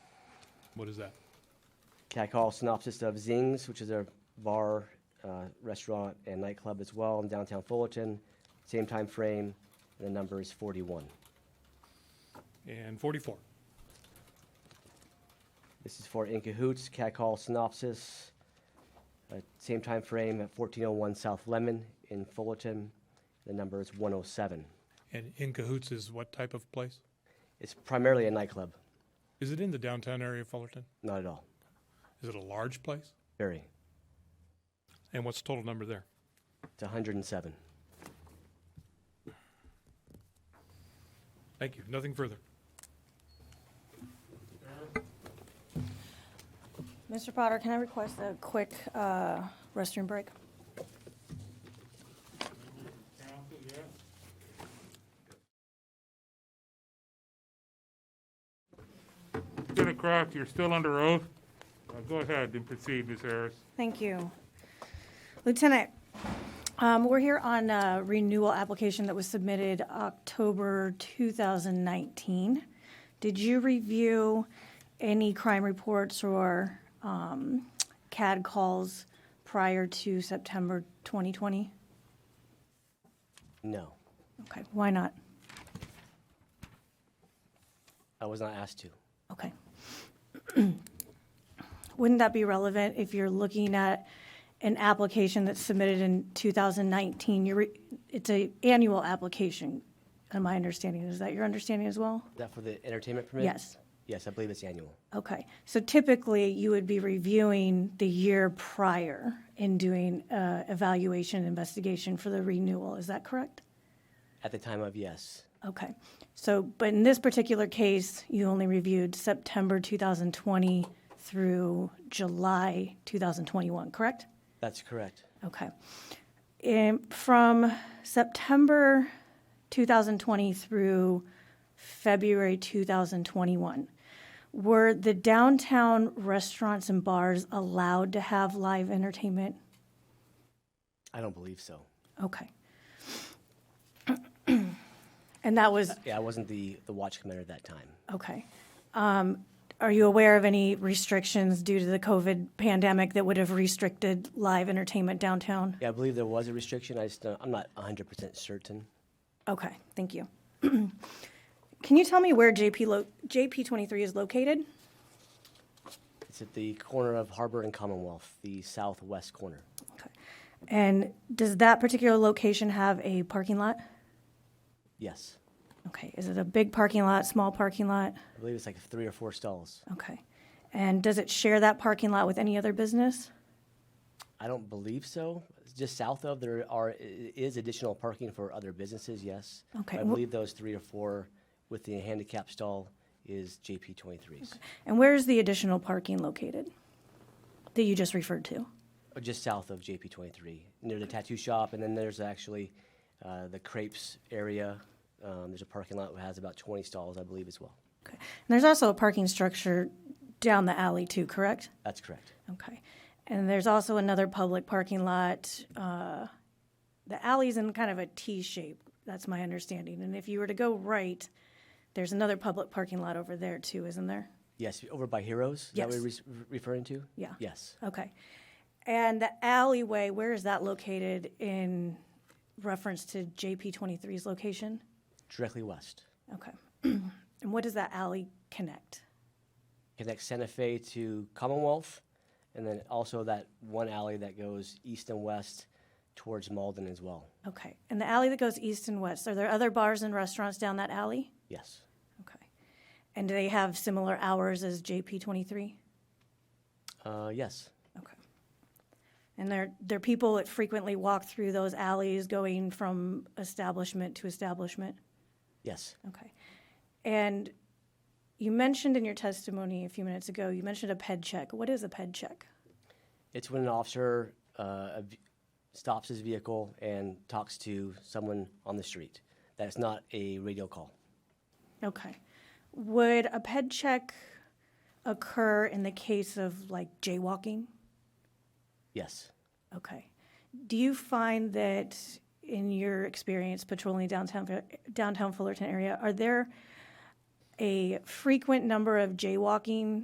What is that? Can I call a synopsis of Zings, which is a bar, uh, restaurant, and nightclub as well in downtown Fullerton, same time frame, and the number is 41. And 44. This is for In Cahoots, Cat Call Synopsis, uh, same time frame at 1401 South Lemon in Fullerton. The number is 107. And In Cahoots is what type of place? It's primarily a nightclub, Is it in the downtown area of Fullerton? not at all. Is it a large place? Very. And what's the total number there? It's 107. Thank you. Nothing further. Mr. Potter, can I request a quick uh, restroom break? Senator Cross, you're still under oath. Uh, Go ahead and proceed, Ms. Harris. Thank you. Lieutenant, um, we're here on a renewal application that was submitted October 2019. Did you review any crime reports or um, CAD calls prior to September 2020? No, Okay, why not? I was not asked to. Okay. Wouldn't that be relevant if you're looking at an application that's submitted in 2019? You're, re- it's a annual application, in my understanding. Is that your understanding as well? Is that for the entertainment permit? Yes. Yes, I believe it's annual. Okay. So typically, you would be reviewing the year prior and doing uh, evaluation, investigation for the renewal. Is that correct? At the time of yes, Okay. So, but in this particular case, you only reviewed September 2020 through July 2021, correct? that's correct. Okay. And from September 2020 through February 2021, were the downtown restaurants and bars allowed to have live entertainment? I don't believe so. Okay. And that was Yeah, I wasn't the, the watch commander at that time. Okay. Um, Are you aware of any restrictions due to the COVID pandemic that would have restricted live entertainment downtown? Yeah, I believe there was a restriction. I just, don't- I'm not 100% certain. Okay, thank you. Can you tell me where JP lo, JP twenty-three is located? It's at the corner of Harbor and Commonwealth, the southwest corner. Okay. And does that particular location have a parking lot? Yes. Okay, is it a big parking lot, small parking lot? I believe it's like three or four stalls. Okay. And does it share that parking lot with any other business? I don't believe so. Just south of, there are, i- is additional parking for other businesses, yes. Okay, I wh- believe those three or four with the handicap stall is JP 23s, And where is the additional parking located that you just referred to? Uh, just south of JP 23, near the tattoo shop. And then there's actually uh, the crepes area. Um, There's a parking lot that has about 20 stalls, I believe, as well. Okay. And there's also a parking structure down the alley too, correct? That's correct. Okay. And there's also another public parking lot. uh, The alley's in kind of a T shape, that's my understanding. And if you were to go right, there's another public parking lot over there too, isn't there? Yes, over by Heroes? Is that what Yes. you're res- referring to? Yeah. Yes. Okay. And the alleyway, where is that located in reference to JP 23's location? Directly west. Okay. And what does that alley connect? connects Santa Fe to Commonwealth, and then also that one alley that goes east and west towards Malden as well. Okay. And the alley that goes east and west, are there other bars and restaurants down that alley? Yes, Okay. And do they have similar hours as JP 23? uh, yes, Okay. And they're, they're people that frequently walk through those alleys going from establishment to establishment? yes, Okay. And you mentioned in your testimony a few minutes ago, you mentioned a ped check. What is a ped check? it's when an officer uh, a v- stops his vehicle and talks to someone on the street. That's not a radio call. Okay. Would a ped check occur in the case of like jaywalking? Yes, Okay. Do you find that in your experience patrolling downtown downtown Fullerton area, are there a frequent number of jaywalking